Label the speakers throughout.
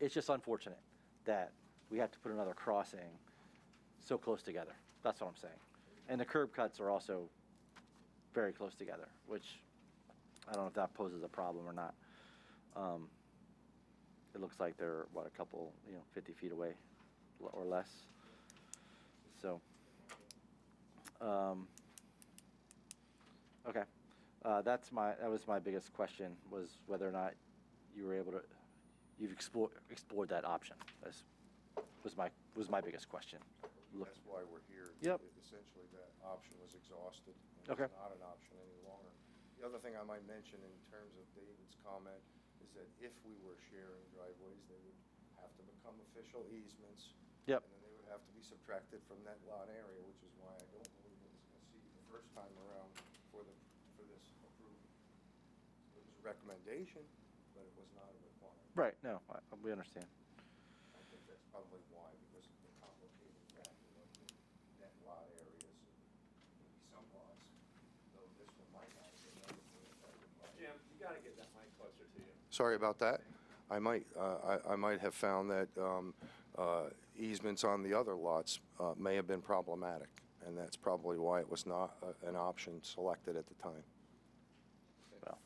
Speaker 1: it's just unfortunate that we have to put another crossing so close together. That's what I'm saying. And the curb cuts are also very close together, which I don't know if that poses a problem or not. Um, It looks like they're, what, a couple, you know, 50 feet away l- or less. So, um, okay. Uh, That's my, that was my biggest question, was whether or not you were able to, you've explored, explored that option. That's, was my, was my biggest question. Look-
Speaker 2: That's why we're here.
Speaker 1: Yep.
Speaker 2: Essentially, that option was exhausted. and
Speaker 1: Okay.
Speaker 2: It's not an option any longer. The other thing I might mention in terms of David's comment is that if we were sharing driveways, they would have to become official easements.
Speaker 1: Yep.
Speaker 2: And then they would have to be subtracted from that lot area, which is why I don't believe it was conceived the first time around for the, for this approval. It was a recommendation, but it was not a requirement.
Speaker 1: Right, no, I- we understand.
Speaker 2: I think that's probably why, because of the complicated factor of the net lot areas, and maybe some lots, though this one might not be another one.
Speaker 3: Jim, you gotta get that mic closer to you.
Speaker 2: Sorry about that. I might, uh, I I might have found that um, uh, easements on the other lots uh, may have been problematic, and that's probably why it was not uh, an option selected at the time.
Speaker 1: Well,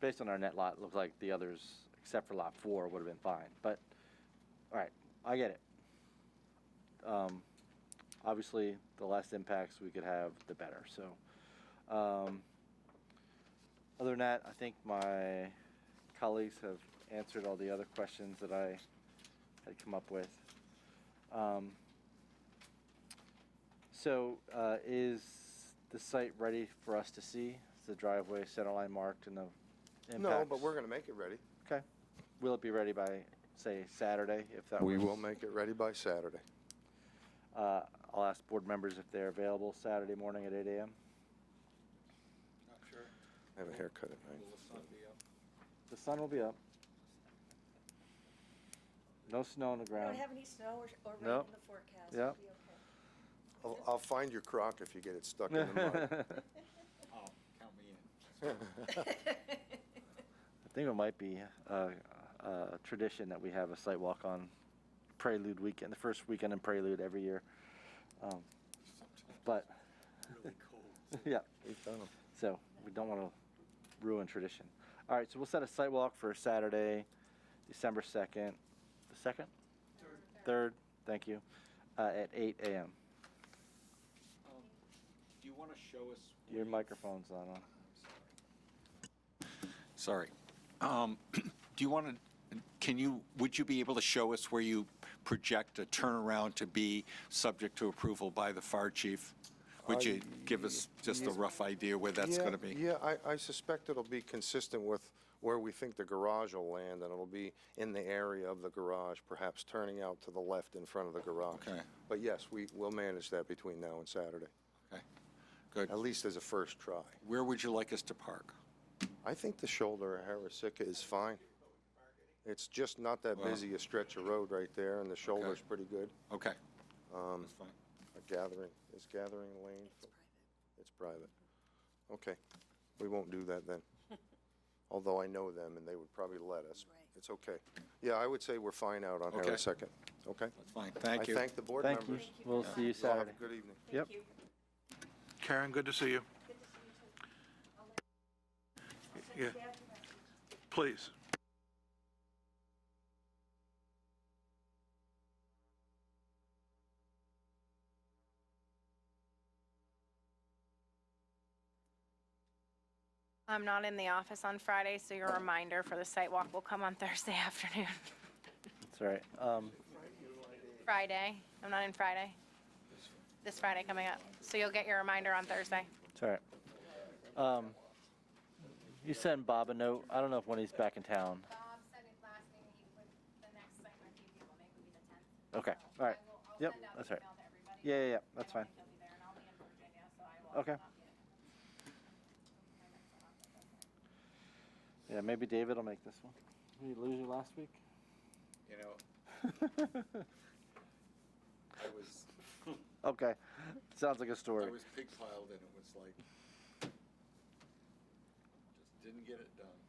Speaker 1: based on our net lot, it looked like the others, except for lot four, would have been fine. But, all right, I get it. Um, obviously, the less impacts we could have, the better. So, um, other than that, I think my colleagues have answered all the other questions that I had come up with. Um, so, uh, is the site ready for us to see? Is the driveway center line marked and the impacts?
Speaker 2: No, but we're going to make it ready.
Speaker 1: Okay. Will it be ready by, say, Saturday, if that
Speaker 2: We
Speaker 1: works?
Speaker 2: will make it ready by Saturday.
Speaker 1: Uh, I'll ask board members if they're available Saturday morning at eight AM.
Speaker 3: Not sure.
Speaker 2: I have a haircut at night.
Speaker 3: Will the sun be up?
Speaker 1: The sun will be up. No snow on the
Speaker 4: We
Speaker 1: ground.
Speaker 4: don't have any snow or, or
Speaker 1: Nope.
Speaker 4: rain in the forecast.
Speaker 1: Yep.
Speaker 4: It'll be okay.
Speaker 2: I'll I'll find your crock if you get it stuck in the mud.
Speaker 3: Oh, count me in.
Speaker 1: I think it might be a, a tradition that we have a site walk on Prelude weekend, the first weekend in Prelude every year. Um, but,
Speaker 3: Really cold.
Speaker 1: yeah,
Speaker 2: We've done 'em.
Speaker 1: so we don't want to ruin tradition. All right, so we'll set a site walk for Saturday, December 2nd, the 2nd? Third, thank you, uh, at 8 a.m.
Speaker 3: Um, Do you wanna show us? where
Speaker 1: Your
Speaker 3: you-
Speaker 1: microphone's not on.
Speaker 3: I'm Sorry. Sorry. Um, Do you wanna, can you, would you be able to show us where you project a turnaround to be subject to approval by the fire chief? Would you give us just a rough idea where that's
Speaker 2: Yeah,
Speaker 3: gonna be?
Speaker 2: Yeah, I, I suspect it'll be consistent with where we think the garage will land, and it'll be in the area of the garage, perhaps turning out to the left in front of the garage.
Speaker 3: Okay.
Speaker 2: But yes, we, we'll manage that between now and Saturday,
Speaker 3: Okay, good.
Speaker 2: at least as a first try.
Speaker 3: Where would you like us to park?
Speaker 2: I think the shoulder of Harrisicka is fine. It's just not that
Speaker 3: Well-
Speaker 2: busy a stretch of road right there, and the shoulder's
Speaker 3: Okay.
Speaker 2: pretty good.
Speaker 3: Okay.
Speaker 2: Um,
Speaker 3: That's fine.
Speaker 2: A gathering, is gathering lane?
Speaker 4: It's private.
Speaker 2: It's private. Okay, we won't do that then. Although I know them and they would probably let us.
Speaker 4: Right.
Speaker 2: It's okay. Yeah, I would say we're fine out on
Speaker 3: Okay.
Speaker 2: Harris Second, okay?
Speaker 3: That's fine, thank you.
Speaker 2: I thank the board
Speaker 1: Thank you.
Speaker 2: members.
Speaker 4: Thank you
Speaker 1: We'll
Speaker 4: very
Speaker 1: see you
Speaker 4: much.
Speaker 2: Y'all have a
Speaker 1: Saturday.
Speaker 2: good evening.
Speaker 1: Yep.
Speaker 4: Thank you.
Speaker 5: Karen, good to see you.
Speaker 4: Good to see you too. I'll let- I'll send
Speaker 5: Yeah.
Speaker 4: Dad the message.
Speaker 5: Please.
Speaker 6: I'm not in the office on Friday, so your reminder for the site walk will come on Thursday afternoon.
Speaker 1: It's all right. Um,
Speaker 6: Friday, I'm not in Friday. This Friday coming up, so you'll get your reminder on Thursday.
Speaker 1: It's all right. Um, you send Bob a note. I don't know if when he's back in town.
Speaker 7: Bob said it last meeting, he would, the next site might be available, maybe would be the tenth.
Speaker 1: Okay, all right. Yep, that's all right. Yeah, yeah, yeah, that's fine.
Speaker 7: I don't think he'll be there, and I'll be in Virginia, so I will.
Speaker 1: Okay.
Speaker 7: not be in. My next one, that's okay.
Speaker 1: Yeah, maybe David will make this one. Did you lose you last week?
Speaker 3: You know, I was,
Speaker 1: okay, sounds like a
Speaker 3: I
Speaker 1: story.
Speaker 3: was pig piled and it was like, just didn't get it done.